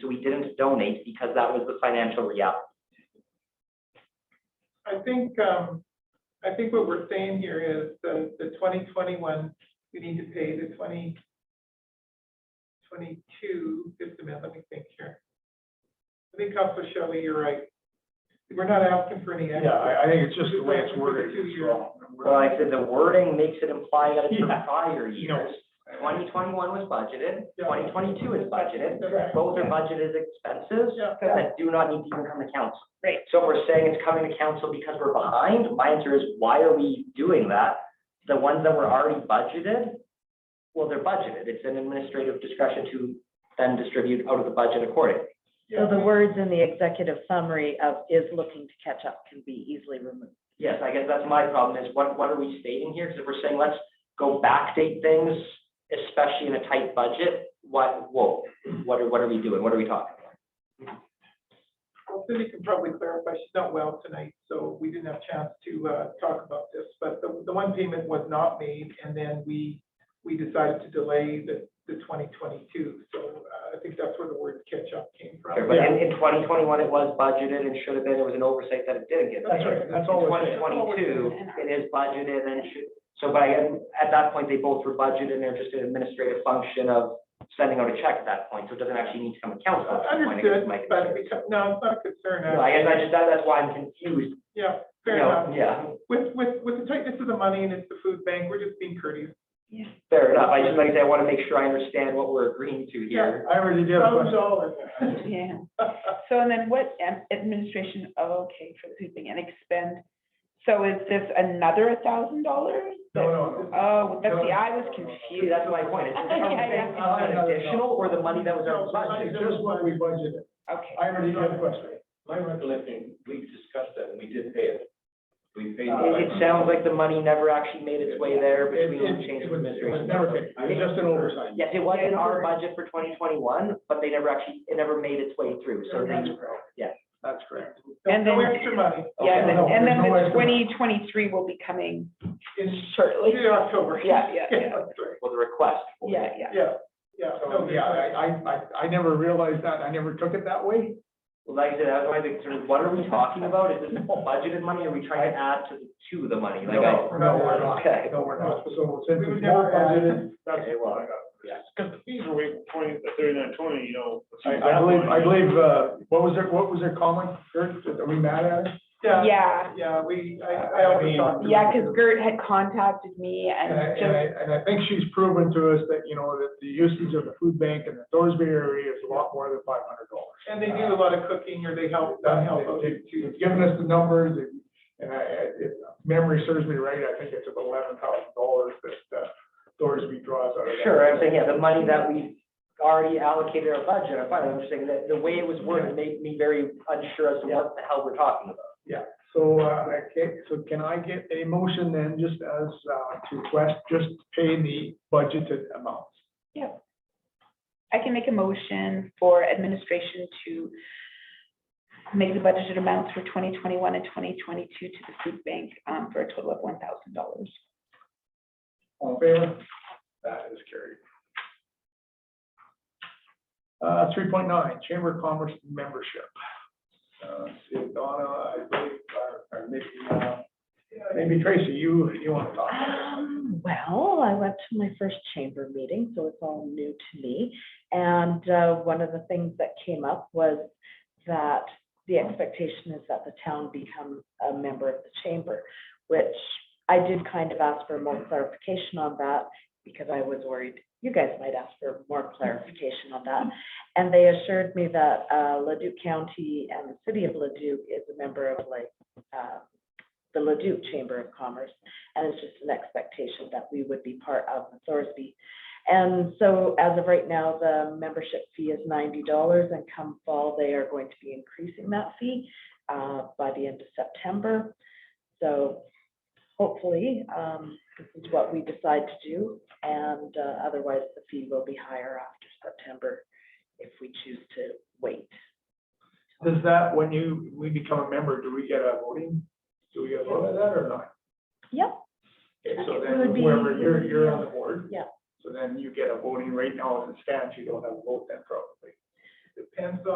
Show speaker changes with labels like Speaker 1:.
Speaker 1: so we didn't donate because that was the financial reality.
Speaker 2: I think, um, I think what we're saying here is the, the twenty twenty-one, we need to pay the twenty twenty-two, just a minute, let me think here. I think Council Shelley, you're right. We're not asking for any
Speaker 3: Yeah,
Speaker 2: extra.
Speaker 3: I, I think it's just the way it's worded.
Speaker 2: Two
Speaker 3: it's
Speaker 2: years.
Speaker 3: wrong.
Speaker 1: Well, I said the wording makes it imply that it's from
Speaker 3: Yeah.
Speaker 1: prior
Speaker 3: You know,
Speaker 1: years. Twenty twenty-one was budgeted,
Speaker 2: Yeah.
Speaker 1: twenty twenty-two is budgeted.
Speaker 2: Correct.
Speaker 1: Both are budgeted expenses
Speaker 2: Yeah.
Speaker 1: that do not need to even come to council.
Speaker 4: Right.
Speaker 1: So if we're saying it's coming to council because we're behind, my answer is, why are we doing that? The ones that were already budgeted, well, they're budgeted. It's an administrative discretion to then distribute out of the budget accordingly.
Speaker 4: So the words in the executive summary of is looking to catch up can be easily removed.
Speaker 1: Yes, I guess that's my problem is what, what are we stating here? Because if we're saying, let's go backdate things, especially in a tight budget, what, whoa, what are, what are we doing? What are we talking about?
Speaker 2: Well, Cindy can probably clarify, she's not well tonight, so we didn't have a chance to, uh, talk about this, but the, the one payment was not made, and then we, we decided to delay the, the twenty twenty-two, so, uh, I think that's where the word catch-up came from.
Speaker 1: Okay, But in, in twenty twenty-one, it was budgeted and should have been, it was an oversight that it didn't get.
Speaker 3: That's right, that's all
Speaker 1: Twenty
Speaker 3: it is.
Speaker 1: twenty-two, it is budgeted and should, so by, at that point, they both were budgeted and they're just an administrative function of sending out a check at that point, so it doesn't actually need to come to council. at that point, I guess,
Speaker 2: Uh, Understood,
Speaker 1: is my concern.
Speaker 2: but it become- no, it's not a concern,
Speaker 1: No, I
Speaker 2: uh,
Speaker 1: guess I just, that, that's why I'm confused,
Speaker 2: yeah,
Speaker 1: you
Speaker 2: fair
Speaker 1: know,
Speaker 2: enough.
Speaker 1: yeah.
Speaker 2: With, with, with the tightness of the money and it's the food bank, we're just being courteous.
Speaker 1: Fair enough. I just, like I say, I want to make sure I understand what we're agreeing to here.
Speaker 3: I already did a
Speaker 2: Thousand
Speaker 3: question.
Speaker 2: dollars.
Speaker 5: Yeah, so and then what am- administration, oh, okay, for the food bank and expend, so is this another a thousand dollars?
Speaker 2: No, no, no.
Speaker 5: Oh, that's
Speaker 2: No.
Speaker 5: the, I was
Speaker 1: See,
Speaker 5: confused,
Speaker 1: that's my point. It's
Speaker 5: Yeah,
Speaker 1: are we saying,
Speaker 5: yeah.
Speaker 1: uh, an additional or the money that was
Speaker 2: No,
Speaker 1: our
Speaker 2: it's
Speaker 1: budget?
Speaker 3: It's just what we budgeted.
Speaker 5: okay.
Speaker 3: I already did a question.
Speaker 6: My recollection, we discussed that, and we did pay it. We paid.
Speaker 1: It, it sounds like the money never actually made its way there
Speaker 3: Uh, It,
Speaker 1: between the
Speaker 3: it,
Speaker 1: change
Speaker 3: it
Speaker 1: of
Speaker 3: was it was
Speaker 1: administration.
Speaker 3: never paid. It was just an oversight.
Speaker 1: Yes, it was in our budget for twenty twenty-one, but they never actually, it never made its way through, so they,
Speaker 3: That's correct.
Speaker 2: No,
Speaker 5: And
Speaker 2: no
Speaker 5: then-
Speaker 2: extra money
Speaker 1: Okay.
Speaker 5: Yeah, and then,
Speaker 3: No,
Speaker 5: and then
Speaker 3: there's no
Speaker 5: the
Speaker 3: extra.
Speaker 5: twenty twenty-three will be coming
Speaker 2: in,
Speaker 5: shortly.
Speaker 2: in October.
Speaker 5: Yeah, yeah, yeah.
Speaker 2: that's right.
Speaker 1: was a request. for it.
Speaker 5: Yeah, yeah.
Speaker 2: Yeah, yeah.
Speaker 3: So, yeah, I, I, I, I never realized that. I never took it that way.
Speaker 1: Well, like I said, that's why I think, sort of, what are we talking about? Is this budgeted money? Are we trying to add to, to the money? Like, I-
Speaker 3: No, no, we're not.
Speaker 1: Okay.
Speaker 3: No, we're not. So since
Speaker 2: We would
Speaker 3: it's
Speaker 2: never
Speaker 3: more
Speaker 2: add.
Speaker 3: budgeted, that's
Speaker 1: Okay,
Speaker 3: what
Speaker 1: well,
Speaker 3: I got.
Speaker 7: Because the fees were way twenty, thirty-nine, twenty, you know.
Speaker 3: I, I believe, I believe, uh, what was their, what was their comment? Kurt, are we mad at it?
Speaker 2: Yeah,
Speaker 5: Yeah,
Speaker 2: yeah, we, I, I also talked. to-
Speaker 5: yeah, because Gert had contacted me
Speaker 3: And I,
Speaker 5: and
Speaker 3: and
Speaker 5: just,
Speaker 3: I, and I think she's proven to us that, you know, that the usage of the food bank in the Thorsby area is a lot more than five hundred dollars.
Speaker 2: And they do a lot of cooking or they
Speaker 1: Oh,
Speaker 2: help, uh, help out
Speaker 3: They've they've given us the numbers, and- and I, I- if memory serves me right, I think it's about eleven thousand dollars that, uh, Thorsby draws out of that.
Speaker 1: Sure, I'm saying, yeah, the money that we already allocated our budget, I'm fine, I'm just saying that the way it was worded made me very unsure as to what the hell we're talking about.
Speaker 3: So, uh, okay, so can I get a motion then, just as, uh, to request, just pay the budgeted amounts?
Speaker 5: I can make a motion for administration to make the budgeted amounts for twenty twenty-one and twenty twenty-two to the food bank, um, for a total of one thousand dollars.
Speaker 3: All in favor? That is carried. Uh, three point nine, Chamber of Commerce membership. Uh, let's see, Donna, I believe, or, or maybe, uh, maybe Tracy, you, you want to talk? about
Speaker 4: Um, well, I went to my first chamber meeting, so it's all new to me. And uh, one of the things that came up was that the expectation is that the town become a member of the chamber, which I did kind of ask for more clarification on that because I was worried you guys might ask for more clarification on that. And they assured me that uh, Leduc County and the city of Leduc is a member of like uh, the Leduc Chamber of Commerce and it's just an expectation that we would be part of the Thorsby. And so as of right now, the membership fee is ninety dollars and come fall, they are going to be increasing that fee uh, by the end of September. So hopefully, um, this is what we decide to do and uh, otherwise the fee will be higher after September if we choose to wait.
Speaker 3: that? Does that, when you, we become a member, do we get a voting? Do we get a vote on that or not?
Speaker 4: Yep,
Speaker 3: Okay, so
Speaker 4: It
Speaker 3: then
Speaker 4: would be-
Speaker 3: whoever, you're, you're on the board.
Speaker 4: Yeah.
Speaker 3: So then you get a voting right now, as it stands, you don't have a vote then probably. And so